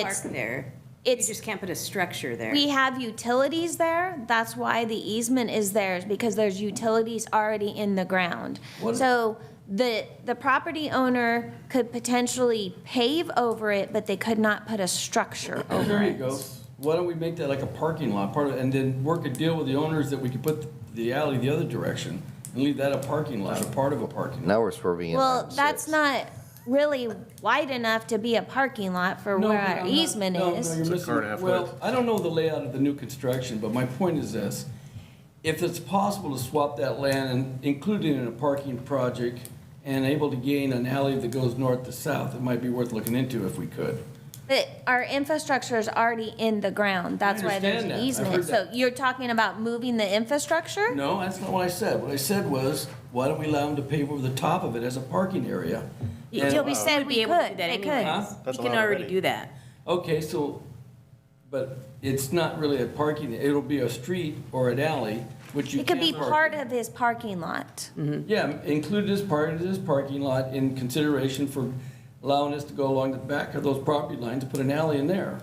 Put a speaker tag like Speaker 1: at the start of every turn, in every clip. Speaker 1: It's,
Speaker 2: park there. You
Speaker 1: it's-
Speaker 2: just can't put a structure there.
Speaker 1: we have utilities there, that's why the easement is there, is because there's utilities already in the ground.
Speaker 3: What-
Speaker 1: So the, the property owner could potentially pave over it, but they could not put a structure over
Speaker 3: There you
Speaker 1: it.
Speaker 3: go. Why don't we make that like a parking lot, part of, and then work a deal with the owners that we could put the alley the other direction and leave that a parking lot, a part of a parking lot.
Speaker 4: Now we're swerving in
Speaker 1: Well,
Speaker 4: on
Speaker 1: that's
Speaker 4: six.
Speaker 1: not really wide enough to be a parking lot for
Speaker 3: No,
Speaker 1: where
Speaker 3: but
Speaker 1: our
Speaker 3: I'm not-
Speaker 1: easement
Speaker 3: no, no,
Speaker 1: is.
Speaker 3: you're
Speaker 5: It's a
Speaker 3: missing-
Speaker 5: car and a half
Speaker 3: Well,
Speaker 5: width.
Speaker 3: I don't know the layout of the new construction, but my point is this. If it's possible to swap that land and include it in a parking project and able to gain an alley that goes north to south, it might be worth looking into if we could.
Speaker 1: But our infrastructure is already in the ground, that's why there's
Speaker 3: understand
Speaker 1: an
Speaker 3: that. I've heard
Speaker 1: easement. So
Speaker 3: that.
Speaker 1: you're talking about moving the infrastructure?
Speaker 3: No, that's not what I said. What I said was, why don't we allow them to pave over the top of it as a parking area?
Speaker 2: You-
Speaker 3: And-
Speaker 2: you-
Speaker 1: we
Speaker 2: you
Speaker 1: said
Speaker 2: would
Speaker 1: we
Speaker 2: be able to
Speaker 1: could,
Speaker 2: do that
Speaker 1: they could.
Speaker 2: anyway.
Speaker 3: Huh?
Speaker 5: That's
Speaker 2: You can
Speaker 5: allowed
Speaker 2: already
Speaker 5: already.
Speaker 2: do that.
Speaker 3: Okay, so, but it's not really a parking, it'll be a street or an alley, which you
Speaker 1: It could be
Speaker 3: can't
Speaker 1: part
Speaker 3: park.
Speaker 1: of his parking lot.
Speaker 3: Yeah, included as part of this parking lot in consideration for allowing us to go along the back of those property lines to put an alley in there.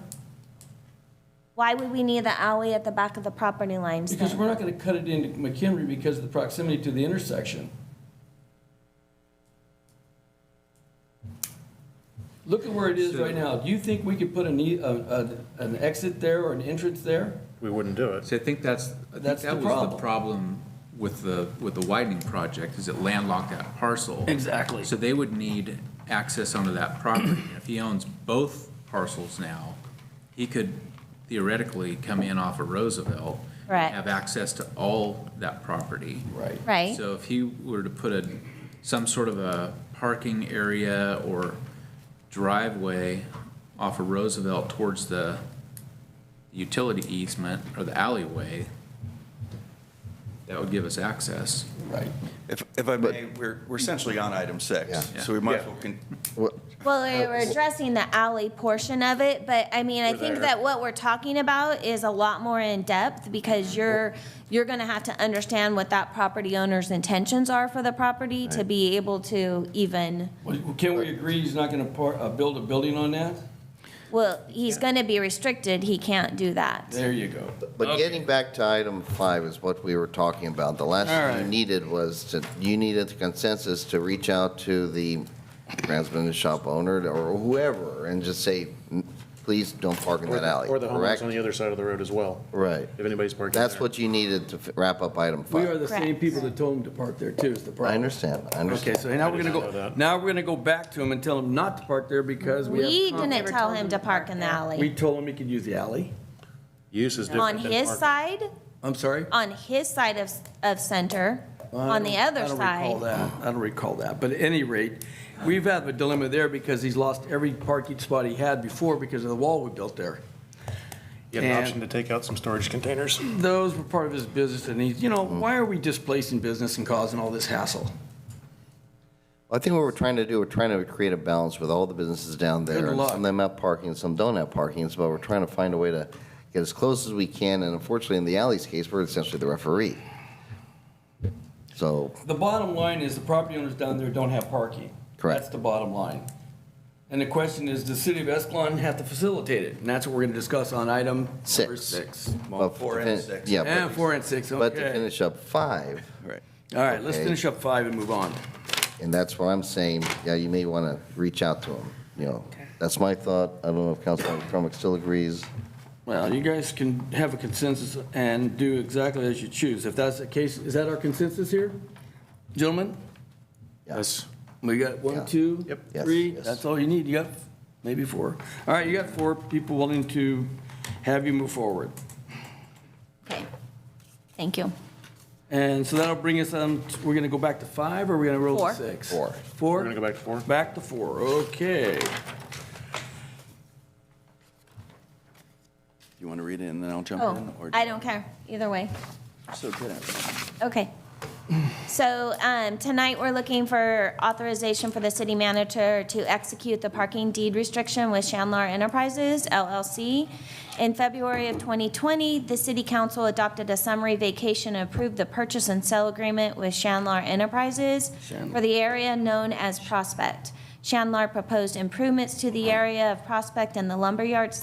Speaker 1: Why would we need the alley at the back of the property lines
Speaker 3: Because
Speaker 1: then?
Speaker 3: we're not gonna cut it into McHenry because of the proximity to the intersection. Look at where it is right now. Do you think we could put an, e- a- a- an exit there or an entrance there?
Speaker 5: We wouldn't do it.
Speaker 6: So I think that's, I think
Speaker 3: That's the
Speaker 6: that was the
Speaker 3: problem.
Speaker 6: problem with the, with the widening project, is it landlocked that parcel.
Speaker 3: Exactly.
Speaker 6: So they would need access onto that property. And If he owns both parcels now, he could theoretically come in off of Roosevelt. and
Speaker 1: Correct.
Speaker 6: Have access to all that property.
Speaker 3: Right.
Speaker 1: Right?
Speaker 6: So if he were to put a, some sort of a parking area or driveway off of Roosevelt towards the utility easement or the alleyway, that would give us access.
Speaker 3: Right.
Speaker 7: If, if I may, we're, we're essentially on item six,
Speaker 4: Yeah.
Speaker 7: so we might as well, con-
Speaker 4: What-
Speaker 1: Well, we we're addressing the alley portion of it, but I mean, I think that what we're talking about is a lot more in-depth because you're, you're gonna have to understand what that property owner's intentions are for the property to be able to even,
Speaker 3: Well, Can we agree he's not gonna par, uh, build a building on that?
Speaker 1: well, he's gonna be restricted, he can't do that.
Speaker 3: There you go.
Speaker 4: But getting back to item five is what we were talking about. The last
Speaker 3: All
Speaker 4: thing
Speaker 3: right.
Speaker 4: you needed was to, you needed consensus to reach out to the transmitter shop owner or whoever and just say, "N- please don't park in
Speaker 5: Or
Speaker 4: that
Speaker 5: the-
Speaker 4: alley,
Speaker 5: Or the homeowners
Speaker 4: correct?
Speaker 5: on the other side of the road as well,
Speaker 4: Right.
Speaker 5: if anybody's parking there.
Speaker 4: That's what you needed to f- wrap up item
Speaker 3: We are
Speaker 4: five.
Speaker 3: the same
Speaker 1: Correct.
Speaker 3: people that told him to park there too, is the
Speaker 4: I
Speaker 3: problem.
Speaker 4: understand, I
Speaker 3: Okay,
Speaker 4: understand.
Speaker 3: so now we're gonna
Speaker 5: I did not
Speaker 3: go,
Speaker 5: know that.
Speaker 3: now we're gonna go back to him and tell him not to park there because we have.
Speaker 1: We
Speaker 3: conflict.
Speaker 1: didn't tell him to park in the
Speaker 3: We
Speaker 1: alley.
Speaker 3: told him he could use the alley.
Speaker 5: Use is different
Speaker 1: On
Speaker 5: than
Speaker 1: his
Speaker 5: parking.
Speaker 1: side,
Speaker 3: I'm sorry?
Speaker 1: on his side of, of center,
Speaker 3: I
Speaker 1: on the
Speaker 3: don't-
Speaker 1: other
Speaker 3: I don't recall
Speaker 1: side.
Speaker 3: that. I don't recall that. But at any rate, we've had a dilemma there because he's lost every parking spot he had before because of the wall we built there.
Speaker 5: You had an
Speaker 3: And-
Speaker 5: option to take out some storage containers.
Speaker 3: Those were part of his business and he's, you know,
Speaker 4: Mm.
Speaker 3: why are we displacing business and causing all this hassle?
Speaker 4: I think what we're trying to do, we're trying to create a balance with all the businesses down there.
Speaker 3: Good
Speaker 4: and
Speaker 3: luck.
Speaker 4: Some of them have parking, and some don't have parking, so we're trying to find a way to get as close as we can, and unfortunately, in the alley's case, we're essentially the referee. So,
Speaker 3: The bottom line is the property owners down there don't have parking.
Speaker 4: Correct.
Speaker 3: That's the bottom line. And the question is, does city of Escalon have to facilitate it? And that's what we're going to discuss on item number
Speaker 4: Six.
Speaker 3: six.
Speaker 4: but
Speaker 7: four
Speaker 4: to
Speaker 7: and
Speaker 4: fin-
Speaker 7: six.
Speaker 4: Yeah,
Speaker 3: And
Speaker 4: but-
Speaker 3: four and six,
Speaker 4: but to
Speaker 3: okay.
Speaker 4: finish up five,
Speaker 3: All right, let's
Speaker 4: Okay.
Speaker 3: finish up five and move on.
Speaker 4: and that's where I'm saying, yeah, you may want to reach out to them, you know. That's my thought. I don't know if Councilman McCormick still agrees.
Speaker 3: Well, you guys can have a consensus and do exactly as you choose. If that's the case, is that our consensus here? Gentlemen,
Speaker 5: Yes.
Speaker 3: we got
Speaker 4: Yeah.
Speaker 3: one, two,
Speaker 5: Yep.
Speaker 4: Yes,
Speaker 3: three,
Speaker 4: yes.
Speaker 3: that's all you need. You got maybe four. All right, you got four people willing to have you move forward.
Speaker 1: Okay, thank you.
Speaker 3: And so that'll bring us, um, we're gonna go back to five, or we're gonna roll
Speaker 1: Four.
Speaker 3: to six?
Speaker 4: Four.
Speaker 3: Four?
Speaker 5: We're gonna go back to four?
Speaker 3: Back to four, okay.
Speaker 7: you want to read it and then I'll jump in?
Speaker 1: Oh,
Speaker 7: or-
Speaker 1: I don't care, either way.
Speaker 7: So good at it.
Speaker 1: Okay. So um, tonight, we're looking for authorization for the city manager to execute the parking deed restriction with Chandler Enterprises LLC. In February of 2020, the city council adopted a summary vacation and approved the purchase and sell agreement with Chandler Enterprises for the area known as Prospect. Chandler proposed improvements to the area of Prospect and the lumberyard